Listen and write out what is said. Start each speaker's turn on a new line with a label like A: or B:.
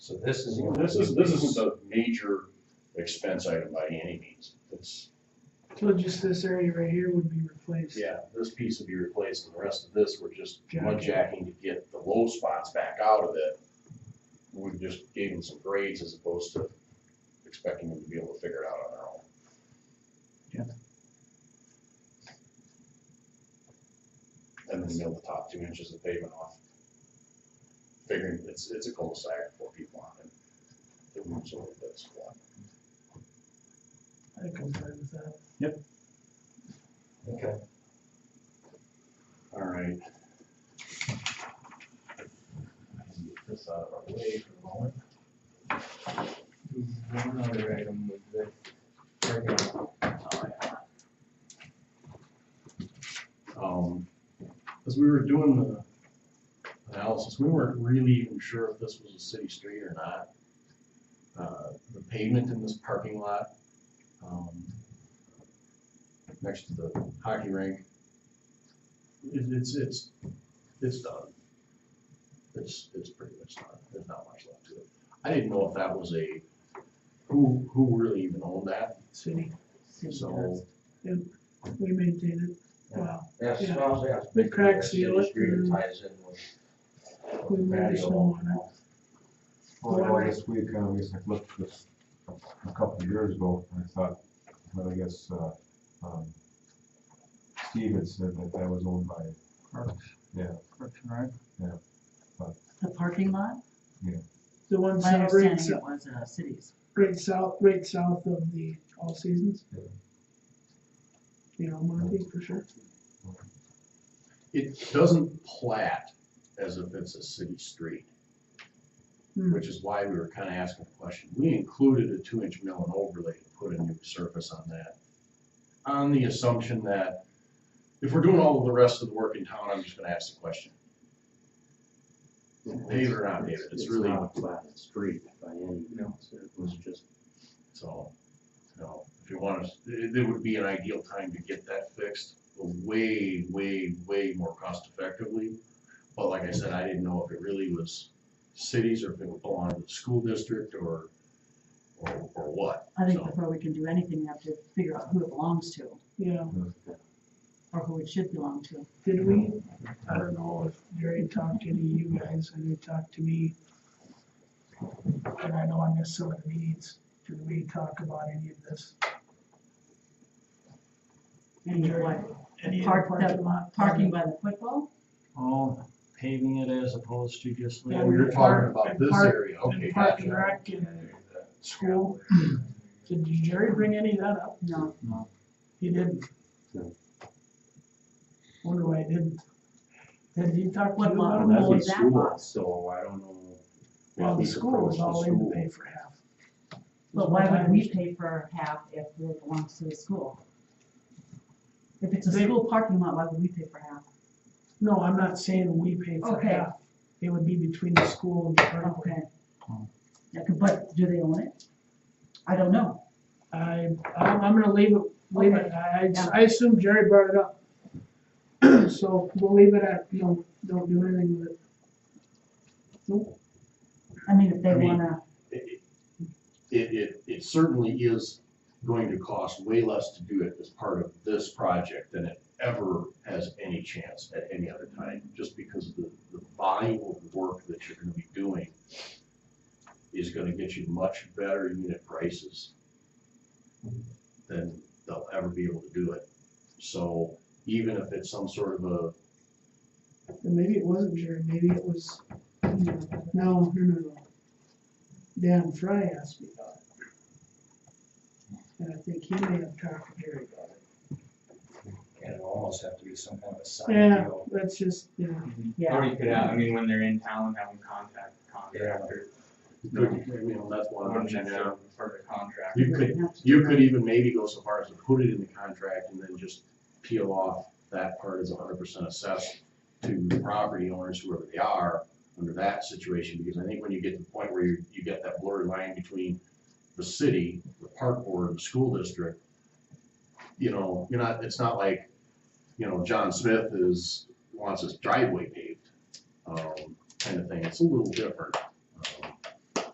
A: So this is.
B: This is, this isn't a major expense item by any means. It's,
C: So just this area right here would be replaced?
B: yeah, this piece would be replaced and the rest of this, we're just
C: Gotcha.
B: mud jacking to get the low spots back out of it. We just gave them some grades as opposed to expecting them to be able to figure it out on their own. And then mill the top two inches of pavement off. Figuring it's, it's a cul-de-sac for people on it. It moves over this one.
C: I think I'm fine with that.
A: Okay.
B: All right.
A: Get This out of our way for the moment. One other item with this.
B: Um, as we were doing the analysis, we weren't really even sure if this was a city street or not. Uh, the pavement in this parking lot, um, next to the hockey rink, it, it's, it's, it's done. It's, it's pretty much done. There's not much left to it. I didn't know if that was a, who, who really even owned that,
C: City,
B: so.
C: we maintain it. Wow,
D: Yes,
C: Yeah.
D: well, yeah.
C: We crack seal it
D: Street
C: and-
D: ties in with.
C: we move the
D: patio.
C: snow on it.
E: Well, I guess we kind of, I guess I looked at this a couple of years ago, and I thought, but I guess, uh, um, Steve had said that that was owned by,
F: The parking lot?
C: The one
F: My
C: south, right
F: understanding
C: south,
F: it was uh, cities.
C: right south, right south of the All Seasons.
E: Yeah.
C: You know, Monty, for sure.
B: It doesn't plat as if it's a city street,
C: Hmm.
B: which is why we were kind of asking the question. We included a two-inch mill and overlay to put a new surface on that. On the assumption that if we're doing all of the rest of the work in town, I'm just gonna ask the question. Pave it or not pave it, it's really,
D: not a flat street by any means, it was just.
B: so, you know, if you want us, it, it would be an ideal time to get that fixed way, way, way more cost effectively. But like I said, I didn't know if it really was cities or if it would belong to the school district or, or, or what.
F: I think
B: So,
F: before we can do anything, we have to figure out who it belongs to
C: Yeah,
F: or who it should belong to.
C: did we, I don't know if Jerry talked to any of you guys, and they talked to me. And I know I missed some of the meetings, did we talk about any of this?
F: And you're like,
C: Any of the
F: Park- that-
C: parking lot?
F: parking by the football?
D: Oh, paving it as opposed to just.
C: Yeah,
B: Oh, you're talking about this
C: Park-
B: area, okay,
C: And parking
B: gotcha.
C: rack and school, did Jerry bring any of that up?
F: No,
C: He didn't.
D: No.
C: Wonder why he didn't. Did he talk to you
F: What
C: about
F: lot?
D: Well,
C: it?
F: know
D: that'd
F: what
D: be
F: that
D: school,
F: was.
D: so I don't know.
C: Well,
D: if
C: the
D: he's
C: school was
D: approached the
C: all in to
D: school.
C: pay for half.
F: but why would we pay for half if it belongs to the school? If it's a
C: They-
F: school parking lot, why would we pay for half?
C: No, I'm not saying we pay for
F: Okay.
C: half. It would be between the school and the parkway.
F: Okay. Yeah, but do they own it? I don't know.
C: I, I'm, I'm gonna leave it, leave it, I,
F: Yeah.
C: I assume Jerry brought it up. So we'll leave it at, no, don't do anything with it.
F: I mean, if they
B: I mean-
F: wanna,
B: It, it- it, it certainly is going to cost way less to do it as part of this project than it ever has any chance at any other time, just because of the, the volume of work that you're gonna be doing is gonna get you much better unit prices than they'll ever be able to do it. So even if it's some sort of a,
C: And maybe it wasn't Jerry, maybe it was, no, no, no, no. Dan Fry asked me about it. And I think he may have talked to Jerry about it.
D: It'd almost have to be some kind of a sign
C: Yeah, that's just, you know,
G: Or
F: yeah,
G: you could, have- I mean, when they're in town, have them contact the contractor,
B: you know, that's one
G: wouldn't
B: option
G: necessarily
B: now.
G: refer to contract.
B: You could
F: have to
B: You could even maybe go so far as to put it in the contract and then just peel off that part as hundred percent assessed to the property owners, whoever they are, under that situation, because I think when you get to the point where you, you get that blurry line between the city, the park board, and the school district, you know, you're not, it's not like, you know, John Smith is, wants his driveway paved, um, kind of thing, it's a little different.